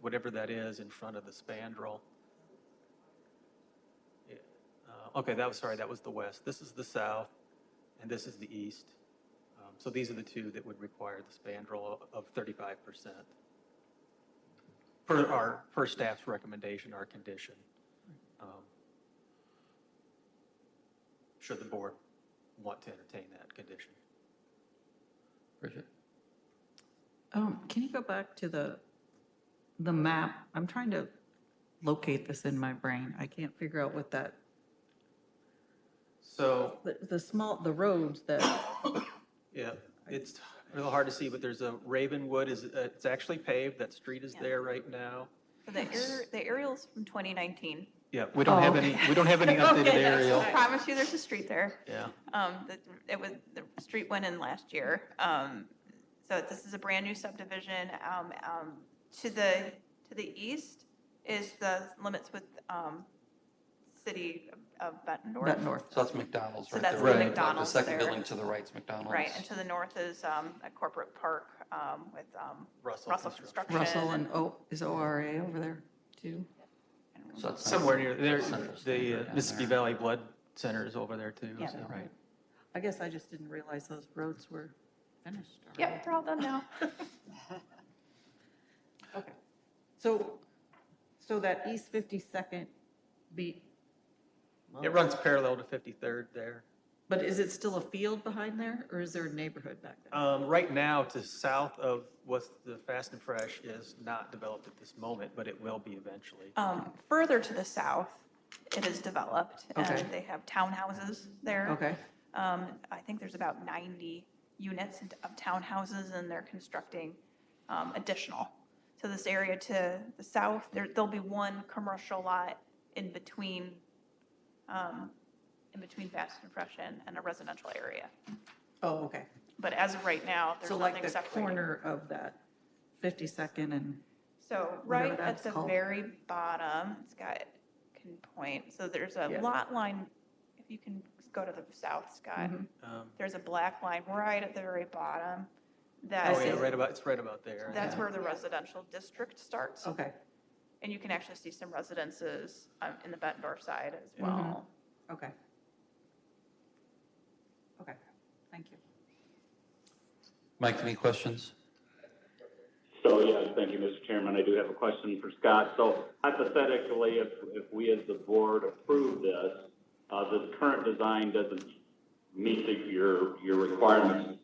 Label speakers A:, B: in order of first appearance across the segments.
A: whatever that is in front of the spandrel. Yeah, uh, Okay, that was, sorry, that was the west. This is the south, and this is the east. Um, So these are the two that would require the spandrel of thirty-five percent. Per our, per staff's recommendation, our condition. Um, Should the board want to entertain that condition?
B: Bridget?
C: Um, can you go back to the, the map? I'm trying to locate this in my brain. I can't figure out what that,
A: So
C: the, the small, the roads that,
A: Yeah, it's real hard to see, but there's a Ravenwood is, uh, it's actually paved, that street is
D: Yeah.
A: there right now.
D: The aer- the aerial's from 2019.
A: Yeah, we don't have
C: Oh,
A: any, we don't have any updated
D: Okay, that's-
A: aerial.
D: I promise you, there's a street there.
A: Yeah,
D: Um, that- It was, the street went in last year. Um, So this is a brand-new subdivision. Um, um, To the, to the east is the limits with um, city of Bettendorf.
C: that north.
B: So that's McDonald's
D: So
B: right there.
D: that's the
B: right? Like
D: McDonald's
B: The second
D: there.
B: building to the right's McDonald's.
D: Right, and to the north is um, a corporate park um, with um,
A: Russell
D: Russell
A: Construction.
D: Construction.
C: Russell and, oh, is ORA over there too?
B: So that's not-
A: somewhere near, there,
B: Center's
A: the
B: right
A: uh,
B: down
A: Mississippi
B: there.
A: Valley Blood Center is over there too,
D: Yeah.
A: so.
B: Right.
C: I guess I just didn't realize those roads were finished. already.
D: Yep, they're all done now.
C: Okay. So, so that East 52nd beat,
A: It runs parallel to 53rd there.
C: but is it still a field behind there or is there a neighborhood back there?
A: Um, right now, to south of what's the Fast and Fresh is not developed at this moment, but it will be eventually.
D: Um, Further to the south, it is developed,
C: Okay.
D: and they have townhouses there.
C: Okay,
D: Um, I think there's about 90 units of townhouses, and they're constructing um, additional. So this area to the south, there, there'll be one commercial lot in between, um, in between Fast and Fresh and, and a residential area.
C: oh, okay.
D: But as of right now, there's
C: So like
D: nothing
C: the
D: separating.
C: corner of that 52nd and,
D: So
C: whatever
D: right
C: that's
D: at the
C: called.
D: very bottom, it's got, can point, so there's a
C: Yeah.
D: lot line, if you can go to the south, Scott,
C: Mhm.
A: Um,
D: there's a black line right at the very bottom. That
A: Oh,
C: see.
A: yeah,
D: is,
A: right about, it's right about there.
D: that's
A: yeah.
D: where the residential district starts.
C: okay,
D: And you can actually see some residences um, in the Bettendorf side as
A: Mm-hmm.
C: Mhm.
D: well.
C: okay. Okay, thank you.
B: Mike, any questions?
E: So, yes, thank you, Mr. Chairman. I do have a question for Scott. So hypothetically, if, if we as the board approve this, uh, this current design doesn't meet the- your, your requirements,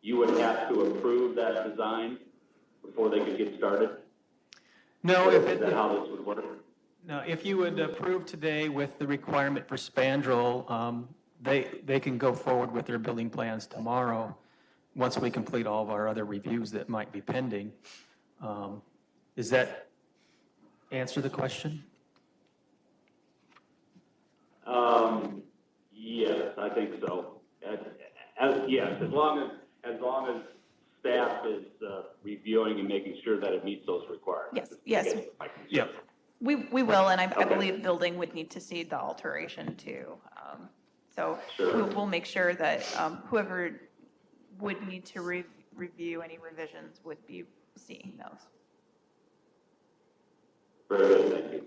E: you would have to approve that design before they could get started?
A: No, if
E: Is that
A: it,
E: how this would work?
A: No, if you would approve today with the requirement for spandrel, um, they, they can go forward with their building plans tomorrow, once we complete all of our other reviews that might be pending. Um, Does that answer the question?
E: Um, yes, I think so. As, as, yes, as long as, as long as staff is, uh, reviewing and making sure that it meets those requirements.
D: Yes, yes.
E: I guess my concern.
A: Yep.
D: We, we will, and I, I
E: Okay.
D: believe building would need to see the alteration too. Um, So
E: Sure.
D: we'll, we'll make sure that um, whoever would need to re, review any revisions would be seeing those.
E: Very good, thank you.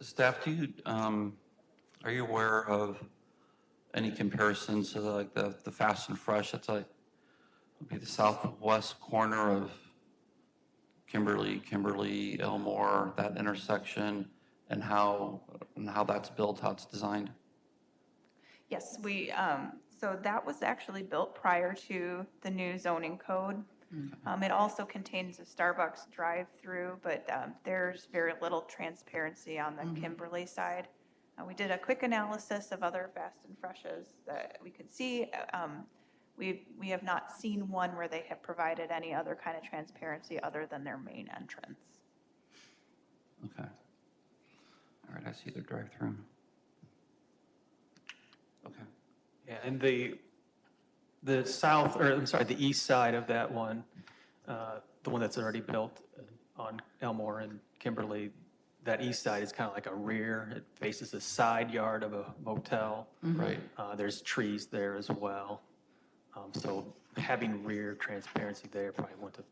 B: Staff, do you, um, are you aware of any comparisons to like the, the Fast and Fresh? That's like, would be the southwest corner of Kimberly, Kimberly, Elmore, that intersection, and how, and how that's built, how it's designed?
D: Yes, we, um, so that was actually built prior to the new zoning code. Um, It also contains a Starbucks drive-through, but um, there's very little transparency on the Kimberly side. Uh, We did a quick analysis of other fast and freshes that we could see. Uh, um, We, we have not seen one where they have provided any other kind of transparency other than their main entrance.
B: Okay. All right, I see the drive-through. Okay.
A: Yeah, and the, the south, or I'm sorry, the east side of that one, uh, the one that's already built on Elmore and Kimberly, that east side is kind of like a rear, it faces a side yard of a motel.
B: Right.
A: Uh, There's trees there as well. Um, So having rear transparency there probably wouldn't have